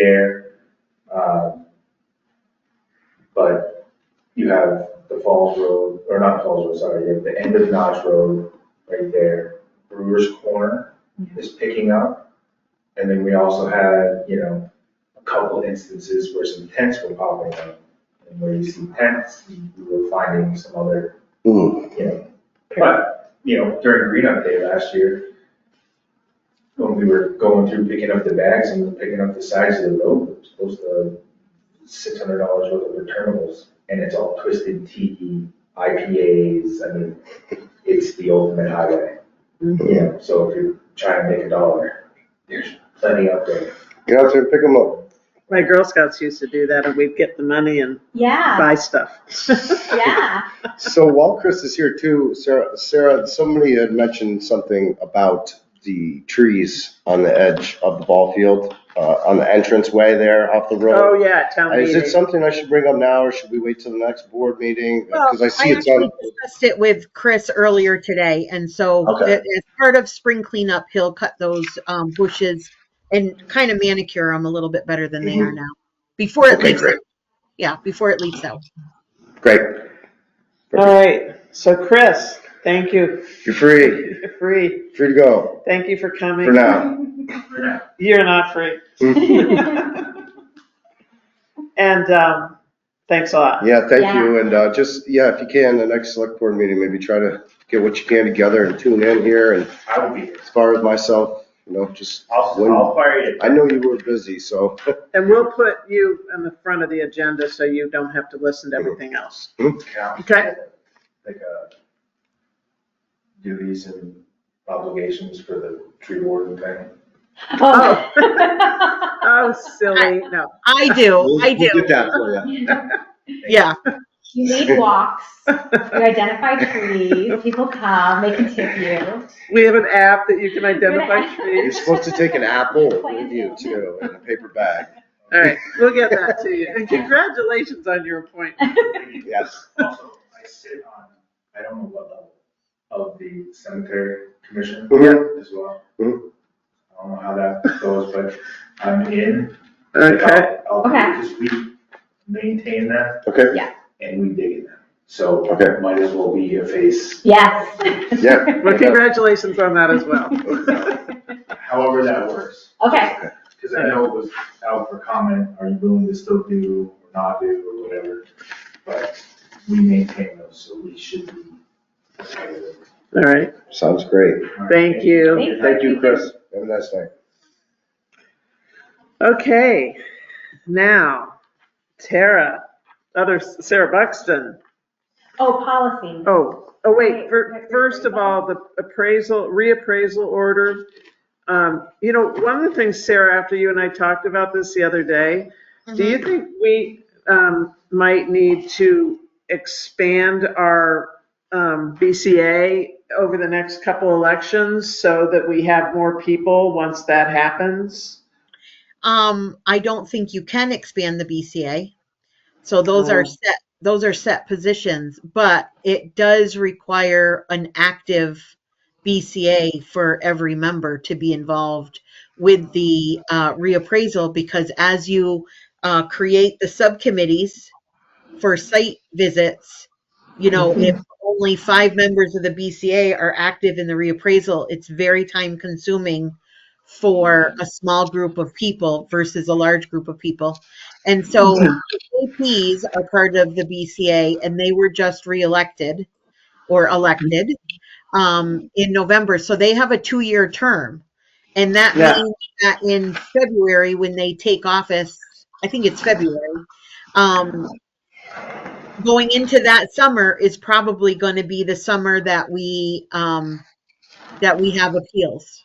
there. Um, But you have the Falls Road, or not Falls Road, sorry, you have the end of Notch Road right there. Brewer's Corner is picking up. And then we also had, you know, a couple instances where some tents were popping up. And where you see tents, we were finding some other Mm. but, you know, during green up day last year, when we were going through picking up the bags and picking up the sides of the road, it was close to six hundred dollars worth of returnables, and it's all twisted E tea, IPAs, I mean, it's the ultimate highway. Mhm. You know, so if you try and make a dollar, there's plenty out there. Get out there and pick them up. My Girl Scouts used to do that, and we'd get the money and Yeah, buy stuff. yeah. So while Chris is here too, Sarah, Sarah, somebody had mentioned something about the trees on the edge of the ball field, uh, on the entrance way there off the Oh, road. yeah, town Is it meeting. something I should bring up now or should we wait till the next board meeting? Well, Because I see I it's on, actually discussed it with Chris earlier today, and so Okay. a- as part of spring cleanup, he'll cut those um, bushes and kind of manicure them a little bit better than they are now, before it Mm-hmm. Okay, leaves. great. out. Yeah, before it leaves out. great. All right, so Chris, thank you. You're free, You're free. free to go Thank you for coming. for now. You're not free. And um, thanks a lot. Yeah, thank Yeah. you. And uh, just, yeah, if you can, the next select board meeting, maybe try to get what you can together and tune in here. And I will be here. as far as myself, you know, just I'll, When- I'll fire you. I know you were busy, so. And we'll put you in the front of the agenda so you don't have to listen to everything else. Okay. Like, uh, duties and obligations for the tree warden thing. Oh. Oh. Oh, silly, no. I do, We'll- I we'll do, get that for you. yeah. You lead walks, you identify trees, people come, they can tip you. We have an app that you can identify You're trees. supposed to take an apple with you too, in a paper bag. All right, we'll get that to you. And congratulations on your appointment. Yes. Also, I sit on, I don't know what level, of the cemetery commission Mhm. as well. I Mhm. don't know how that goes, but I'm in. Okay, I'll- I'll- Okay. Because we maintain that Okay, and we dig in that. So Okay. might as well be a face, Yes. Yeah. well, congratulations on that as well. however that works. Okay, Because I know it was out for comment, are you willing to still do or not do or whatever? But we Mm-hmm. maintain those, so we should be. All right, sounds great. thank you. Thank you, Chris. Have a nice night. Okay, now, Tara, other, Sarah Buxton. oh, policy. Oh, oh, wait, fir- first of all, the appraisal, reappraisal order. Um, You know, one of the things, Sarah, after you and I talked about this the other day, do you think we um, might need to expand our um, BCA over the next couple elections so that we have more people once that happens? Um, I don't think you can expand the BCA. So those Oh. are set, those are set positions, but it does require an active BCA for every member to be involved with the uh, reappraisal because as you uh, create the subcommittees for site visits, you know, if only five members of the BCA are active in the reappraisal, it's very time consuming for a small group of people versus a large group of people. And so the APs are part of the BCA and they were just reelected or elected um, in November. So they have a two-year term. And that Yeah. means that in February, when they take office, I think it's February, um, going into that summer is probably going to be the summer that we, um, that we have appeals.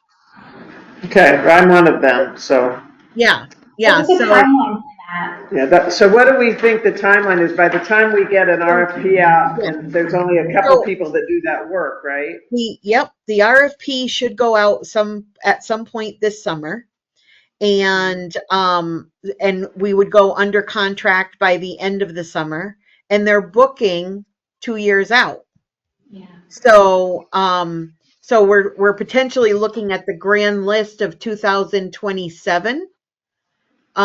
Okay, I'm one of them, so, Yeah, yeah, What's the so, timeline for that? yeah, that, so what do we think the timeline is? By the time we get an RFP out, and there's only a couple Oh. people that do that work, right? we, yep, the RFP should go out some, at some point this summer. And, um, and we would go under contract by the end of the summer, and they're booking two years out. Yeah. So, um, so we're, we're potentially looking at the grand list of two thousand twenty-seven